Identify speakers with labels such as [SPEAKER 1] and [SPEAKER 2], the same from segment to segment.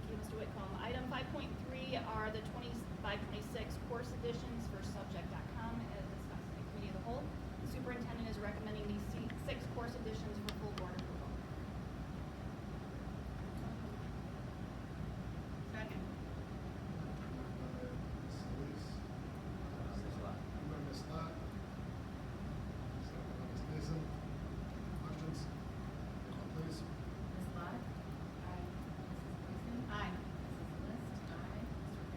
[SPEAKER 1] home. Item five point three are the 25-26 course additions for subject.com as discussed in committee of the whole. Superintendent is recommending these se- six course additions for full board approval.
[SPEAKER 2] Second.
[SPEAKER 3] Moved by Ms. Solis.
[SPEAKER 4] Ms. Lot.
[SPEAKER 3] Moved by Ms. Lot. Second by Ms. Mason. Questions? Roll call, please.
[SPEAKER 2] Ms. Lot? Aye. Mrs. Gleason?
[SPEAKER 1] Aye.
[SPEAKER 2] Mrs. List? Aye.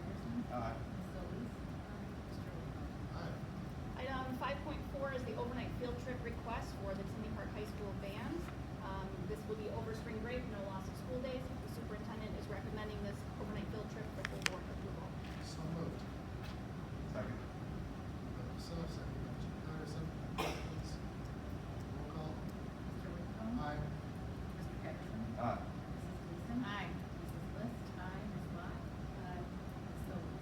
[SPEAKER 2] Mr. Harrison? Ms. Solis? Aye.
[SPEAKER 4] Aye.
[SPEAKER 2] Mr. Whitmore?
[SPEAKER 3] Aye.
[SPEAKER 1] Item five point four is the overnight field trip request for the Tinley Park High School band. Um, this will be over spring break, no loss of school days. The superintendent is recommending this overnight field trip for full board approval.
[SPEAKER 3] So moved.
[SPEAKER 4] Second.
[SPEAKER 3] Moved by myself, second by Mr. Patterson. Questions? Roll call.
[SPEAKER 2] Mr. Whitcomb?
[SPEAKER 3] Aye.
[SPEAKER 2] Mr. Harrison?
[SPEAKER 4] Aye.
[SPEAKER 2] Mrs. Gleason?
[SPEAKER 1] Aye.
[SPEAKER 2] Mrs. List? Aye. Ms. Lot? Aye. Ms. Solis?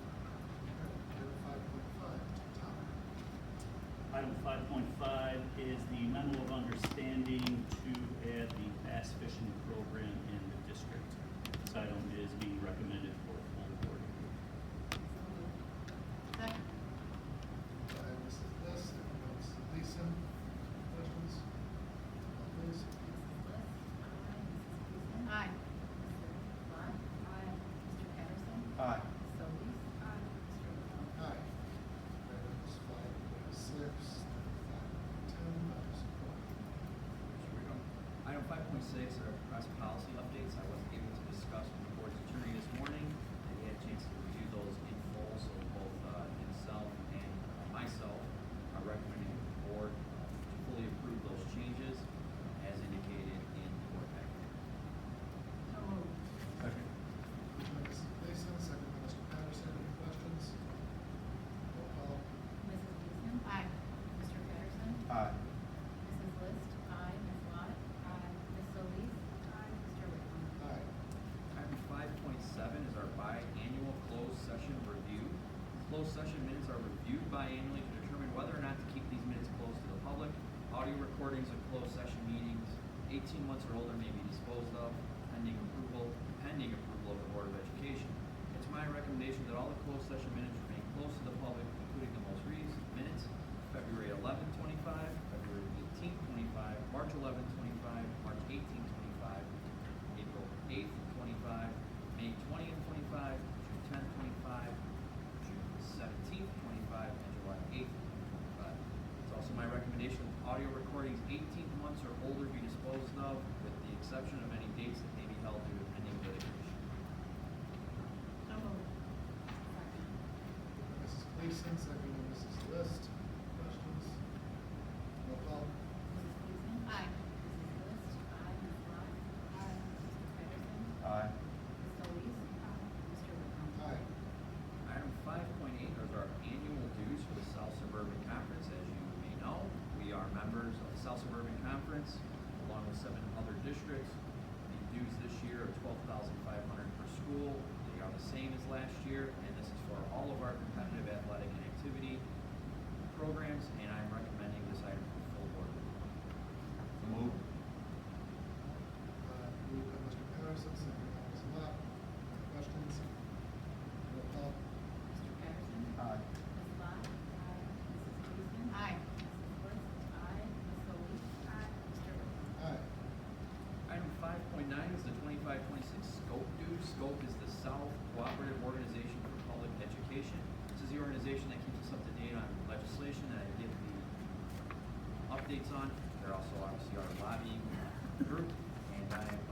[SPEAKER 3] Item five point five, Tom.
[SPEAKER 5] Item five point five is the memo of understanding to add the bass fishing program in the district. This item is being recommended for full board approval.
[SPEAKER 2] So moved.
[SPEAKER 3] Moved
[SPEAKER 1] Second.
[SPEAKER 3] by Mrs. List, second by Mrs. Gleason. Questions? Roll call, please.
[SPEAKER 2] Mrs. List? Aye. Mrs. Gleason? Mr.
[SPEAKER 1] Aye.
[SPEAKER 2] Lot? Aye. Mr. Harrison?
[SPEAKER 4] Aye.
[SPEAKER 2] Ms. Solis? Aye. Mr. Whitmore?
[SPEAKER 3] Aye. Items five point six, five point ten, Dr. Sequoia.
[SPEAKER 4] Item five point six are press policy updates I wasn't able to discuss with the board's attorney this morning. and he had a chance to review those in full, so both uh, himself and uh, myself are recommending the board uh, to fully approve those changes as indicated in the board packet.
[SPEAKER 2] So moved.
[SPEAKER 4] Second.
[SPEAKER 3] Moved by Mrs. Gleason, second by Mr. Patterson, any questions? Roll call.
[SPEAKER 2] Mrs. Gleason?
[SPEAKER 1] Aye.
[SPEAKER 2] Mr. Patterson?
[SPEAKER 4] Aye.
[SPEAKER 2] Mrs. List? Aye. Ms. Lot? Aye. Ms. Solis? Aye. Mr. Whitmore?
[SPEAKER 3] Aye.
[SPEAKER 4] Item five point seven is our biannual closed session review. Closed session minutes are reviewed biannually to determine whether or not to keep these minutes closed to the public. Audio recordings of closed session meetings eighteen months or older may be disposed of pending approval, pending approval of the Board of Education. It's my recommendation that all the closed session minutes remain closed to the public, including the most recent minutes, February 11, 25, February 18, 25, March 11, 25, March 18, 25. April eighth, twenty-five, May twentieth, twenty-five, June tenth, twenty-five, June seventeenth, twenty-five, and July eighth, twenty-five. It's also my recommendation, that audio recordings eighteen months or older be disposed of, with the exception of any dates that may be held due to pending litigation.
[SPEAKER 2] So moved. Second.
[SPEAKER 3] Moved by Mrs. Gleason, second by Mrs. List, questions? Roll call.
[SPEAKER 2] Mrs. Gleason?
[SPEAKER 1] Aye.
[SPEAKER 2] Mrs. List? Aye. Ms. Lot? Aye. Mr. Patterson?
[SPEAKER 4] Aye.
[SPEAKER 2] Ms. Solis? Aye. Mr. Whitmore?
[SPEAKER 3] Aye.
[SPEAKER 4] Item five point eight is our annual dues for the South Suburban Conference. As you may know, we are members of the South Suburban Conference along with seven other districts. The dues this year are twelve thousand five hundred per school. They are the same as last year, and this is for all of our competitive athletic and activity programs, and I'm recommending this item for full board. Move.
[SPEAKER 3] Uh, moved by Mr. Patterson, second by Mrs. Lot, questions? Roll call.
[SPEAKER 2] Mr. Patterson?
[SPEAKER 4] Aye.
[SPEAKER 2] Ms. Lot? Aye. Mrs. Gleason? Mrs.
[SPEAKER 1] Aye.
[SPEAKER 2] List? Aye. Ms. Solis? Aye. Mr. Whitmore?
[SPEAKER 3] Aye.
[SPEAKER 4] Item five point nine is the twenty-five, twenty-six scope due. Scope is the South Cooperative Organization for Public Education. This is the organization that keeps us up to date on legislation that I give the updates on. They're also obviously our lobbying group, and I uh, am